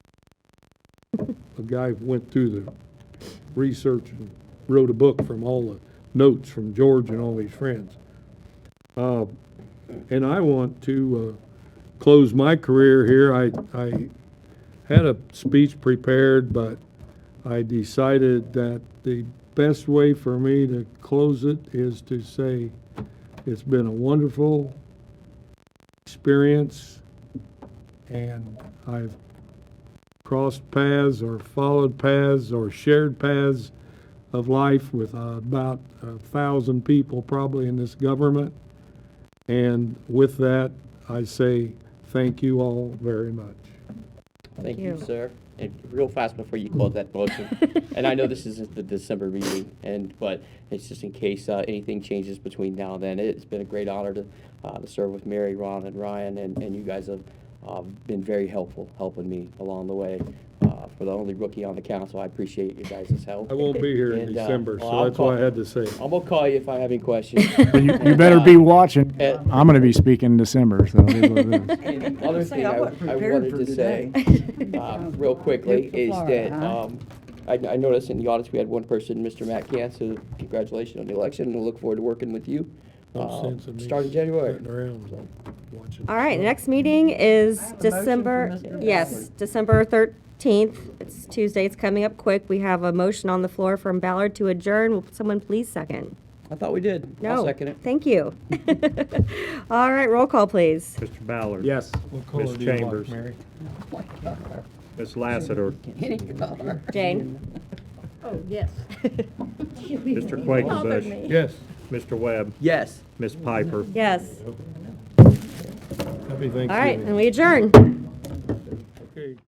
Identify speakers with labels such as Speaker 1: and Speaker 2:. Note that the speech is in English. Speaker 1: a guy went through the research and wrote a book from all the notes from George and all his friends. Uh, And I want to uh, close my career here. I, I had a speech prepared, but I decided that the best way for me to close it is to say, it's been a wonderful experience, and I've crossed paths or followed paths or shared paths of life with uh, about a thousand people probably in this government. And with that, I say thank you all very much.
Speaker 2: Thank
Speaker 3: you.
Speaker 2: you, sir. And real fast before you close that motion, and I know this isn't the December meeting, and, but it's just in case uh, anything changes between now and then. It's been a great honor to, uh, to serve with Mary, Ron, and Ryan, and, and you guys have uh, been very helpful, helping me along the way. Uh, For the only rookie on the council, I appreciate you guys' help.
Speaker 1: I won't be here in
Speaker 2: And, uh,
Speaker 1: December, so
Speaker 2: well,
Speaker 1: that's
Speaker 2: I'll
Speaker 1: why I
Speaker 2: call-
Speaker 1: had to say. it.
Speaker 2: I'm gonna call you if I have any questions.
Speaker 4: But you, you better be watching.
Speaker 2: Uh,
Speaker 4: I'm gonna be speaking in December, so it is what it is.
Speaker 2: And the other thing I I wanted to say. um, real quickly is that um, I I noticed in the audits, we had one person, Mr. Matt Cantz, so congratulations on the election, and I look forward to working with you
Speaker 1: No
Speaker 2: uh,
Speaker 1: sense in me
Speaker 2: starting January.
Speaker 1: sitting around watching.
Speaker 3: All right, next meeting is
Speaker 5: I have a motion for
Speaker 3: December,
Speaker 5: Mr.
Speaker 3: yes,
Speaker 5: Ballard.
Speaker 3: December 13th. It's Tuesday, it's coming up quick. We have a motion on the floor from Ballard to adjourn. Will someone please second?
Speaker 2: I thought we did.
Speaker 3: No.
Speaker 2: I'll second it.
Speaker 3: Thank you. All right, roll call, please.
Speaker 6: Mr. Ballard.
Speaker 4: Yes.
Speaker 1: What color
Speaker 6: Miss
Speaker 1: do you like,
Speaker 6: Chambers.
Speaker 1: Mary?
Speaker 6: Ms. Lassiter.
Speaker 5: Any color.
Speaker 3: Jane?
Speaker 5: Oh, yes.
Speaker 6: Mr. Quakenbush.
Speaker 1: Yes,
Speaker 6: Mr. Webb.
Speaker 2: Yes.
Speaker 6: Ms. Piper.
Speaker 3: Yes.
Speaker 1: happy Thanksgiving.
Speaker 3: All right, and we adjourn.